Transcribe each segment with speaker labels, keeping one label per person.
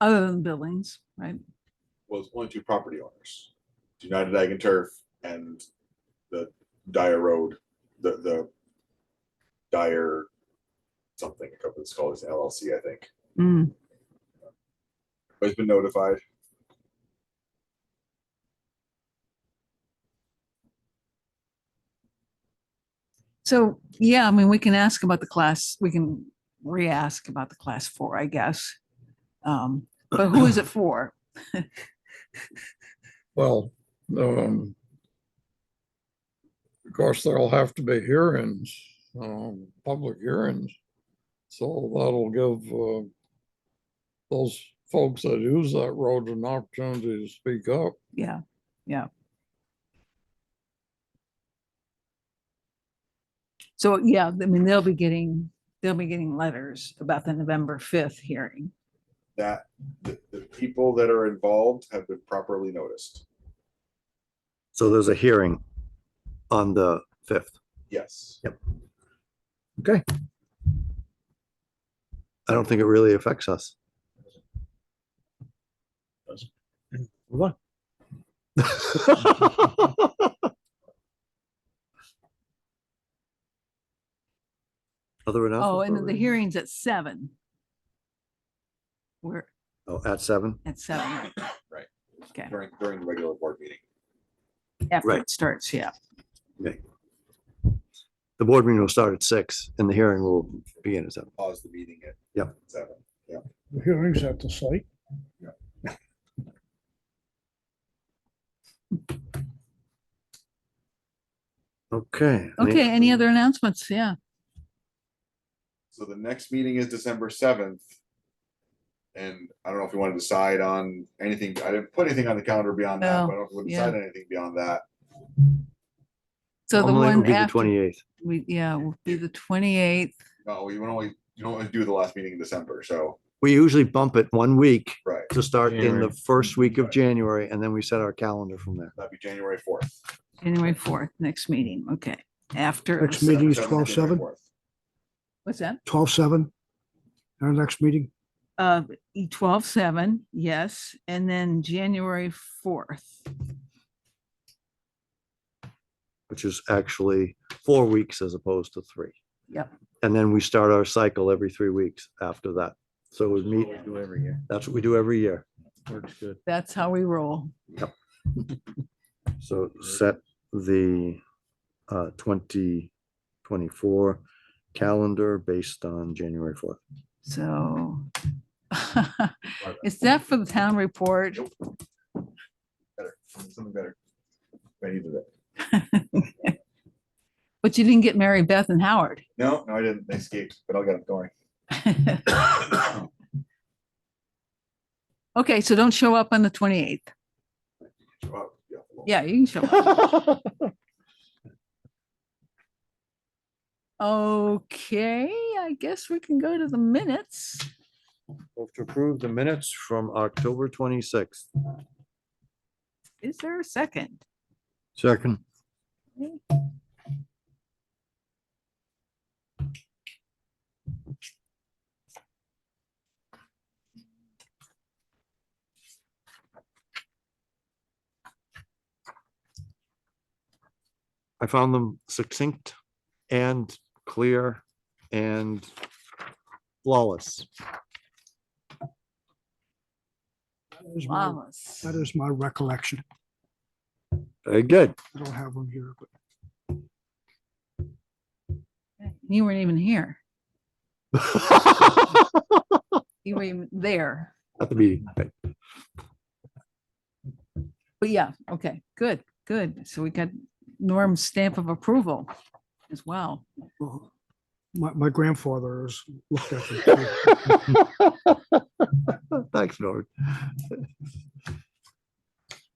Speaker 1: other than buildings, right?
Speaker 2: was only two property owners, United Ag and Turf and the Dyer Road, the, the Dyer something, a couple of scholars LLC, I think,
Speaker 1: Mm,
Speaker 2: has been notified.
Speaker 1: So, yeah, I mean, we can ask about the class, we can re-ask about the class four, I guess. Um, But who is it for?
Speaker 3: Well, um, of course, there'll have to be hearings, um, public hearings. So that'll give, uh, those folks that use that road an opportunity to speak up.
Speaker 1: Yeah, yeah. So, yeah, I mean, they'll be getting, they'll be getting letters about the November fifth hearing.
Speaker 2: That, the, the people that are involved have been properly noticed.
Speaker 4: So there's a hearing on the fifth.
Speaker 2: Yes.
Speaker 4: I don't think it really affects us.
Speaker 5: Move on.
Speaker 4: Other enough?
Speaker 1: Oh, and then the hearing's at seven. We're
Speaker 4: Oh, at seven?
Speaker 1: at seven, right? Okay.
Speaker 2: During, during the regular board meeting.
Speaker 1: After
Speaker 4: Right.
Speaker 1: it starts, yeah.
Speaker 4: The board meeting will start at six and the hearing will begin at seven.
Speaker 2: Pause the meeting at.
Speaker 4: Yep.
Speaker 2: Seven.
Speaker 5: The hearings at the site.
Speaker 4: Okay. any-
Speaker 1: Okay, any other announcements? Yeah.
Speaker 2: So the next meeting is December seventh. And I don't know if we want to decide on anything. I didn't put anything on the calendar beyond that,
Speaker 1: No,
Speaker 2: but I don't know if we'll
Speaker 1: yeah.
Speaker 2: decide anything beyond that.
Speaker 1: So the
Speaker 4: Normally it would
Speaker 1: one
Speaker 4: be the
Speaker 1: after,
Speaker 4: twenty-eighth.
Speaker 1: we, yeah, will be the twenty-eighth.
Speaker 2: No, you don't only, you don't always do the last meeting in December, so,
Speaker 4: We usually bump it one week
Speaker 2: right,
Speaker 4: to start in the
Speaker 5: January.
Speaker 4: first week of January and then we set our calendar from there.
Speaker 2: that'd be January fourth.
Speaker 1: January fourth, next meeting, okay, after,
Speaker 6: Next meeting is
Speaker 2: December
Speaker 6: 12
Speaker 2: 7th, January
Speaker 6: 7,
Speaker 2: fourth.
Speaker 1: what's that?
Speaker 6: 12 7. Our next meeting,
Speaker 1: Uh, e- twelve, seven, yes, and then January fourth.
Speaker 4: which is actually four weeks as opposed to three.
Speaker 1: Yep.
Speaker 4: And then we start our cycle every three weeks after that. So we meet,
Speaker 5: Do every year.
Speaker 4: that's what we do every year.
Speaker 5: Works good.
Speaker 1: That's how we roll.
Speaker 4: So set the uh, twenty twenty-four calendar based on January fourth.
Speaker 1: So is that for the town report?
Speaker 2: Better, Something better. I needed it.
Speaker 1: But you didn't get Mary Beth and Howard.
Speaker 2: No, no, I didn't. They escaped, but I'll get them going.
Speaker 1: Okay, so don't show up on the twenty-eighth. Yeah, you can show up. Okay, I guess we can go to the minutes.
Speaker 4: To approve the minutes from October twenty-sixth.
Speaker 1: Is there a second?
Speaker 4: Second. I found them succinct and clear and flawless.
Speaker 6: That is my-
Speaker 1: Flawless.
Speaker 6: that is my recollection.
Speaker 4: Very good.
Speaker 6: I don't have them here, but
Speaker 1: You weren't even here. You were even there.
Speaker 4: At the meeting. right.
Speaker 1: But yeah, okay, good, good. So we got Norm's stamp of approval as well.
Speaker 6: well, uh, my, my grandfather has looked at them.
Speaker 4: Thanks, Norm.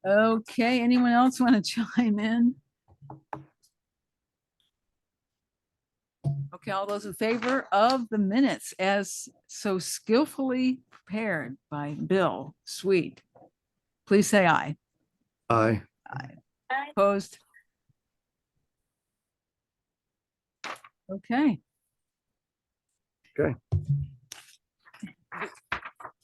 Speaker 1: Okay, anyone else want to chime in? Okay, all those in favor of the minutes as so skillfully prepared by Bill Sweet, please say aye.
Speaker 4: Aye.
Speaker 1: Opposed? Okay.
Speaker 4: Okay.